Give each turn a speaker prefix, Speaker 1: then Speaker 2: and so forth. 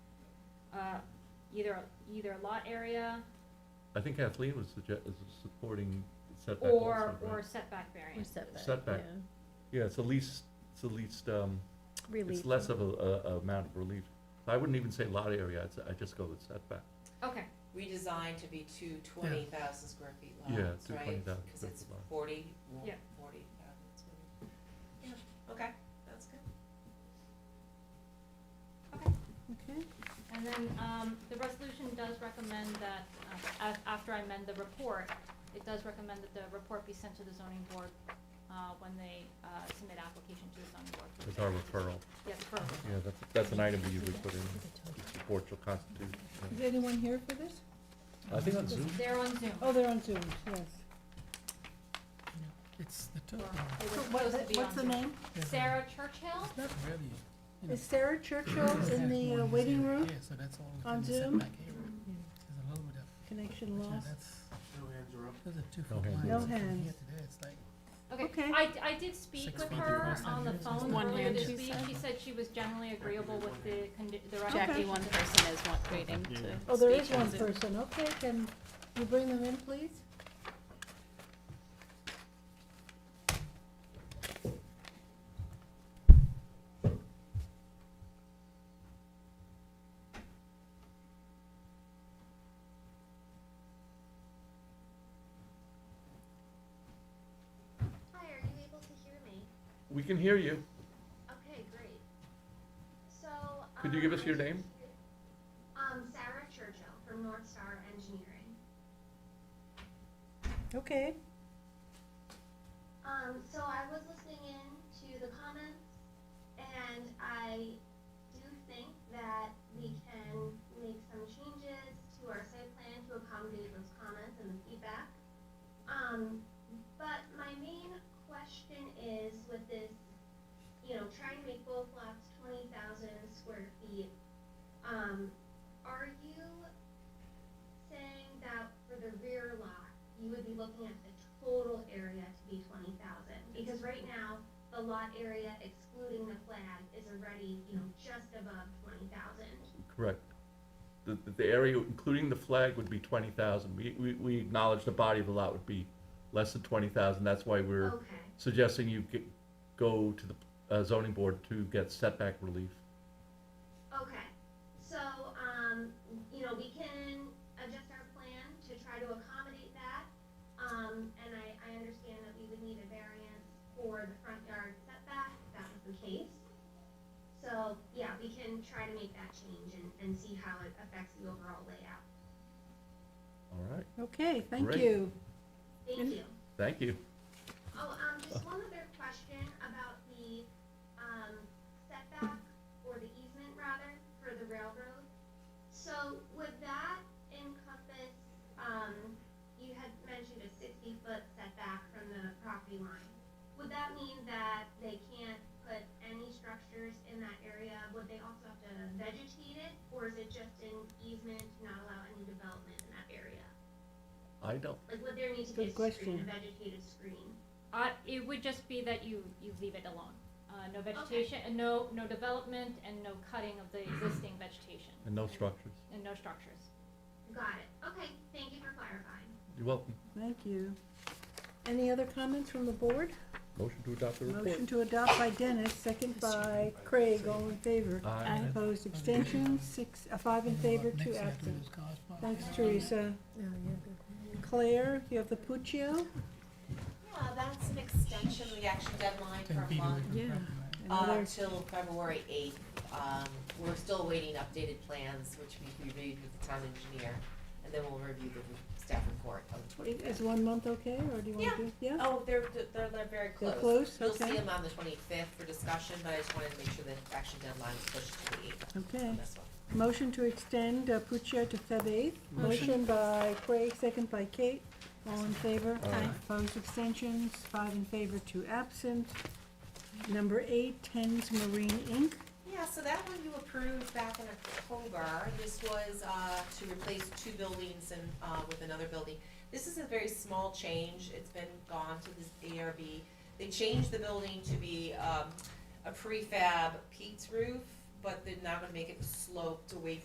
Speaker 1: uh, either, either lot area
Speaker 2: I think Kathleen was suggest, is supporting setback
Speaker 1: or,
Speaker 2: also,
Speaker 1: or
Speaker 2: right?
Speaker 1: setback
Speaker 3: Or
Speaker 1: variance.
Speaker 3: setback.
Speaker 2: Setback.
Speaker 3: yeah.
Speaker 2: Yeah, it's the least, it's the least, um, it's
Speaker 3: Relief.
Speaker 2: less of a, a, a amount of relief. I wouldn't even say lot area, I'd, s- I'd just go with setback.
Speaker 1: Okay,
Speaker 4: redesigned to be two twenty thousand square feet
Speaker 2: Yeah,
Speaker 4: lots,
Speaker 2: two
Speaker 4: right?
Speaker 2: 20,000
Speaker 4: Cause
Speaker 2: square
Speaker 4: it's
Speaker 2: feet lot.
Speaker 4: forty, well,
Speaker 1: Yeah.
Speaker 4: forty thousand square feet. Yeah, okay, that's good.
Speaker 3: Okay,
Speaker 1: and then, um, the resolution does recommend that, uh, af- after I amend the report, it does recommend that the report be sent to the zoning board, uh, when they, uh, submit application to the zoning board. for
Speaker 2: It's our
Speaker 1: variance.
Speaker 2: referral.
Speaker 1: Yes, referral.
Speaker 2: Yeah, that's, that's an item we usually put in, to support your constitution.
Speaker 3: is anyone here for this?
Speaker 2: I think on Zoom,
Speaker 1: They're on Zoom.
Speaker 3: Oh, they're on Zoom, yes.
Speaker 5: It's the
Speaker 1: Or
Speaker 5: top one.
Speaker 1: they were
Speaker 3: So what-
Speaker 1: supposed to be
Speaker 3: What's
Speaker 1: on
Speaker 3: the
Speaker 1: Zoom.
Speaker 3: name?
Speaker 5: Yeah,
Speaker 1: Sarah Churchill?
Speaker 5: It's not really. you know,
Speaker 3: Is Sarah Churchill
Speaker 5: it's
Speaker 3: in
Speaker 5: that
Speaker 3: the uh,
Speaker 5: one
Speaker 3: waiting
Speaker 5: here.
Speaker 3: room?
Speaker 5: Yeah, so that's all
Speaker 3: on
Speaker 5: within the
Speaker 3: Zoom?
Speaker 5: setback area. There's a little bit of,
Speaker 3: Connection
Speaker 5: yeah,
Speaker 3: lost.
Speaker 5: that's,
Speaker 6: No hands are up.
Speaker 5: those are two
Speaker 2: No
Speaker 5: foot
Speaker 2: hands.
Speaker 5: lines.
Speaker 3: No
Speaker 5: From
Speaker 3: hands.
Speaker 5: here to there, it's like-
Speaker 1: Okay,
Speaker 3: Okay.
Speaker 1: I, I did speak
Speaker 5: Six
Speaker 1: with
Speaker 5: feet
Speaker 1: her
Speaker 5: across
Speaker 1: on the
Speaker 5: that is
Speaker 1: phone
Speaker 7: One
Speaker 1: earlier
Speaker 7: hand,
Speaker 1: this
Speaker 7: she
Speaker 1: week,
Speaker 7: said.
Speaker 1: she said she was generally agreeable with the condi- the
Speaker 7: Jackie,
Speaker 1: recommendation.
Speaker 7: one person is one waiting to speak.
Speaker 3: Oh, there is
Speaker 7: on
Speaker 3: one
Speaker 7: Zoom.
Speaker 3: person, okay, can you bring them in, please?
Speaker 8: Hi, are you able to hear me?
Speaker 2: we can hear you.
Speaker 8: Okay, great. So.
Speaker 2: Could you
Speaker 8: um,
Speaker 2: give us
Speaker 8: I
Speaker 2: your
Speaker 8: just-
Speaker 2: name?
Speaker 8: Um, Sarah Churchill from North Star Engineering.
Speaker 3: Okay.
Speaker 8: Um, so I was listening in to the comments, and I do think that we can make some changes to our site plan to accommodate those comments and the feedback. Um, but my main question is with this, you know, trying to make both lots twenty thousand square feet, um, are you saying that for the rear lot, you would be looking at the total area to be twenty thousand, because right now, the lot area excluding the flag is already, you know, just above twenty thousand.
Speaker 2: Correct. The, the- the area, including the flag, would be twenty thousand. We, we, we acknowledge the body of the lot would be less than twenty thousand, that's why we're
Speaker 8: Okay,
Speaker 2: suggesting you get, go to the uh, zoning board to get setback relief.
Speaker 8: okay, so, um, you know, we can adjust our plan to try to accommodate that. Um, and I, I understand that we would need a variance for the front yard setback, if that was the case. So, yeah, we can try to make that change and, and see how it affects the overall layout.
Speaker 2: All right,
Speaker 3: Okay, thank
Speaker 2: Great.
Speaker 3: you.
Speaker 8: Thank
Speaker 3: And-
Speaker 8: you.
Speaker 2: thank you.
Speaker 8: Oh, um, just one other question about the, um, setback, or the easement rather, for the railroad. So would that encompass, um, you had mentioned a sixty-foot setback from the property line. Would that mean that they can't put any structures in that area? Would they also have to vegetate it, or is it just an easement to not allow any development in that area?
Speaker 2: I don't,
Speaker 8: Like, would there need to be
Speaker 3: Good
Speaker 8: a screen,
Speaker 3: question.
Speaker 8: a vegetated screen?
Speaker 1: Uh, it would just be that you, you leave it alone, uh, no vegetation, and no, no development, and no cutting of the existing vegetation,
Speaker 2: and no structures.
Speaker 1: and no structures.
Speaker 8: Got it. Okay, thank you for clarifying.
Speaker 2: You're welcome.
Speaker 3: Thank you. Any other comments from the board?
Speaker 2: Motion to adopt the report.
Speaker 3: Motion to adopt by Dennis, second by Craig, all in favor.
Speaker 2: Aye.
Speaker 3: Opposed, abstentions, six, uh, five in favor, two absent. Thanks, Teresa. Claire, you have the Puccio?
Speaker 4: Yeah, that's an extension, we actually deadline for a month,
Speaker 3: Yeah.
Speaker 4: uh,
Speaker 3: Another,
Speaker 4: till February eighth. Um, we're still awaiting updated plans, which we reviewed with the town engineer, and then we'll review the staff report on the
Speaker 3: i- is
Speaker 4: twenty-fifth.
Speaker 3: one month okay, or do you
Speaker 4: Yeah.
Speaker 3: want to do? Yeah.
Speaker 4: Oh, they're, they're, they're very close.
Speaker 3: They're close,
Speaker 4: You'll see
Speaker 3: okay.
Speaker 4: them on the twenty-fifth for discussion, but I just wanted to make sure that the action deadline is pushed to the eighth
Speaker 3: Okay.
Speaker 4: on this one.
Speaker 3: Motion to extend uh, Puccio to Feb. 8th. Motion by Craig, second by Kate. All in favor?
Speaker 2: Aye.
Speaker 3: Opposed, abstentions, five in favor, two absent. Number eight, Tens Marine Inc.
Speaker 4: Yeah, so that one you approved back in October. This was uh, to replace two buildings and uh, with another building. This is a very small change. It's been gone to the ARB. They changed the building to be um, a prefab peaked roof, but they're not gonna make it sloped away